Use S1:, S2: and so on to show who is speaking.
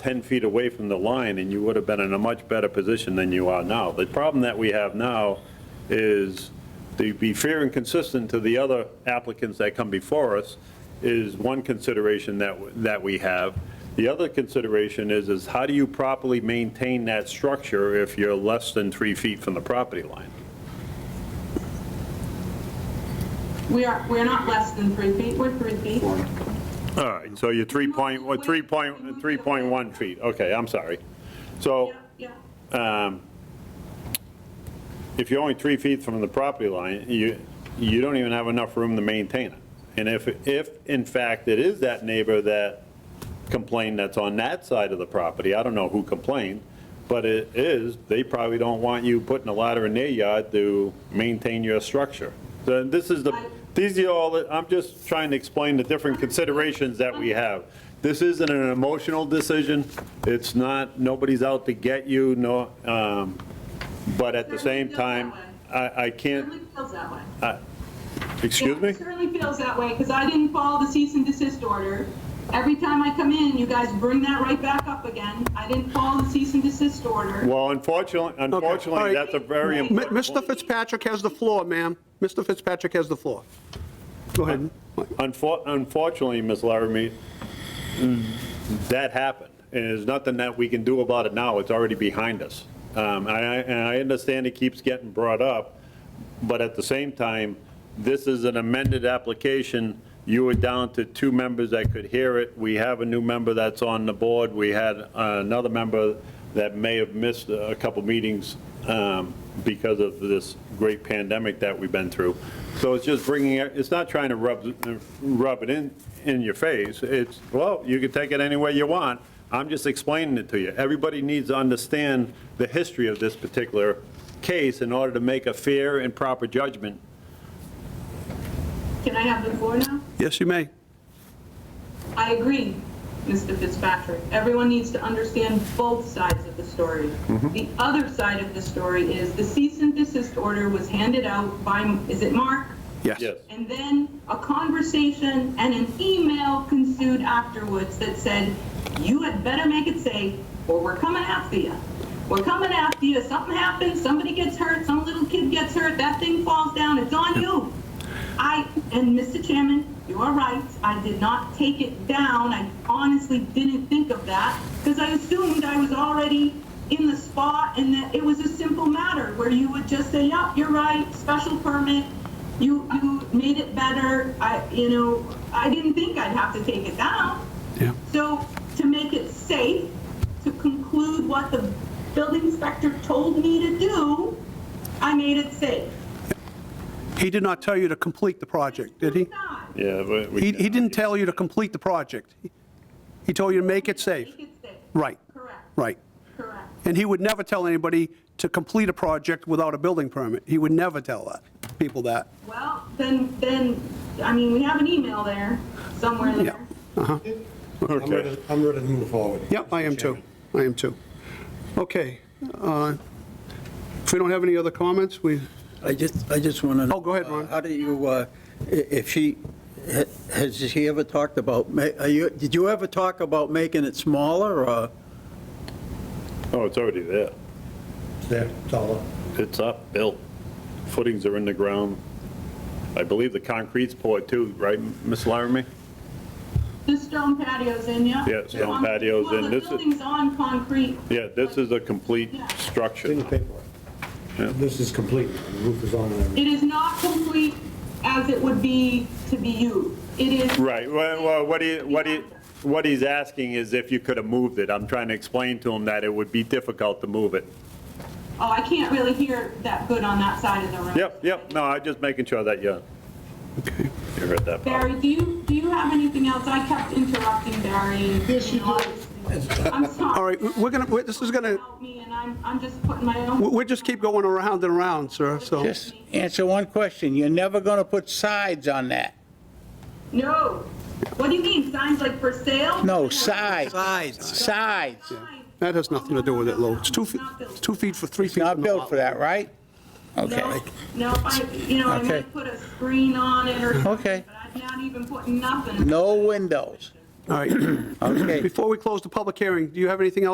S1: 10 feet away from the line, and you would have been in a much better position than you are now. The problem that we have now is, to be fair and consistent to the other applicants that come before us, is one consideration that, w- that we have. The other consideration is, is how do you properly maintain that structure if you're less than three feet from the property line?
S2: We are, we're not less than three feet, we're three feet.
S1: All right, so you're 3 point, what, 3 point, 3.1 feet, okay, I'm sorry. So.
S3: Oh.
S2: Yeah, yeah.
S1: um, if you're only three feet from the property line, you, you don't even have enough room to maintain it. And if, if in fact it is that neighbor that complained that's on that side of the property, I don't know who complained, but it is, they probably don't want you putting a ladder in their yard to maintain your structure. So this is the, these are all, the- I'm just trying to explain the different considerations that we have. This isn't an emotional decision, it's not, nobody's out to get you, no, um, but at the same time, I, I can't,
S2: Certainly feels that way.
S3: Uh,
S1: excuse
S2: Yeah,
S1: me?
S2: it Certainly feels that way, because I didn't follow the cease and desist order. Every time I come in, you guys bring that right back up again. I didn't follow the cease and desist order.
S1: Well, unfortunately, unfortunately,
S2: right.
S1: that's a very
S2: M-
S1: important
S2: M-
S1: point.
S2: Mr.
S3: Mr. Fitzpatrick has the floor, ma'am. Mr. Fitzpatrick has the floor. Go ahead.
S1: Unfor- Unfortunately, Ms. Laramie, that happened, and there's nothing that we can do about it now, it's already behind us. Um, And I and I understand it keeps getting brought up, but at the same time, this is an amended application, you were down to two members that could hear it, we have a new member that's on the board, we had uh, another member that may have missed a couple meetings um, because of this great pandemic that we've been through. So it's just bringing, it- it's not trying to rub, rub it in, in your face. It's, well, you can take it any way you want. I'm just explaining it to you. Everybody needs to understand the history of this particular case in order to make a fair and proper judgment.
S2: Can I have the floor now?
S3: Yes, you may.
S2: I agree, Mr. Fitzpatrick. Everyone needs to understand both sides of the story.
S3: Mm-hmm.
S2: The other side of the story is the cease and desist order was handed out by, is it Mark?
S3: Yes.
S1: Yes.
S2: And then a conversation and an email ensued afterwards that said, you had better make it safe or we're coming after you. We're coming after you. Something happens, somebody gets hurt, some little kid gets hurt, that thing falls down, it's on you. I, and Mr. Chairman, you are right, I did not take it down. I honestly didn't think of that because I assumed I was already in the spot and that it was a simple matter where you would just say, yep, you're right, special permit, you, you made it better. I, you know, I didn't think I'd have to take it down.
S3: Yeah.
S2: So to make it safe, to conclude what the building inspector told me to do, I made it safe.
S3: He did not tell you to complete the project, did he?
S2: Not.
S1: Yeah, but we.
S3: He, he didn't tell you to complete the project. He told you to make it safe.
S2: Make it safe.
S3: Right,
S2: Correct.
S3: right.
S2: Correct.
S3: And he would never tell anybody to complete a project without a building permit. He would never tell that, people that.
S2: Well, then, then, I mean, we have an email there, somewhere
S3: Yeah.
S2: there.
S4: I'm ready, I'm ready to move forward.
S3: Yep, I am too. I am too. Okay. uh, If we don't have any other comments, we,
S5: I just, I just want to know.
S3: Oh, go ahead, Ron.
S5: uh, How do you, uh, i- if she, ha- has she ever talked about, ma- are you, did you ever talk about making it smaller, or?
S1: Oh, it's already there.
S4: There, it's all up.
S1: It's up, built. Footings are in the ground. I believe the concrete's poured too, right, Ms. Laramie?
S2: The stone patio's in, yeah?
S1: Yeah, stone
S2: On-
S1: patio's
S2: well,
S1: in.
S2: the
S1: This is-
S2: building's on concrete.
S1: Yeah, this is a complete
S4: It's in the
S1: structure.
S4: paperwork. This is complete, the roof is on and everything.
S2: It is not complete as it would be to be used. It is.
S1: Right, well, well, what he, what he, what he's asking is if you could have moved it. I'm trying to explain to him that it would be difficult to move it.
S2: Oh, I can't really hear that good on that side of the room.
S1: Yep, yep, no, I'm just making sure that you, you heard that. part.
S2: Barry, do you, do you have anything else? I kept interrupting Barry. and-
S4: Yes, you
S2: and all
S4: do.
S2: this. I'm sorry.
S3: all right, we're gonna, we're- this is gonna,
S2: Help me, and I'm, I'm just putting my own.
S3: we'll we'll just keep going around and around, sir, so.
S6: Just answer one question. You're never going to put sides on that.
S2: No. What do you mean? Signs like for sale?
S6: No, sides.
S5: Sides.
S6: Sides.
S3: That has nothing to do with it, Lou. It's two, feet.
S2: Not built.
S3: two feet for three feet.
S6: Not built for that, right?
S2: No,
S6: Okay.
S2: no, if I, you know, I
S6: Okay.
S2: might put a screen on it or something,
S6: Okay.
S2: but I'm not even putting nothing.
S6: No windows.
S3: All right.
S5: Okay.
S3: Before we close the public hearing, do you have anything else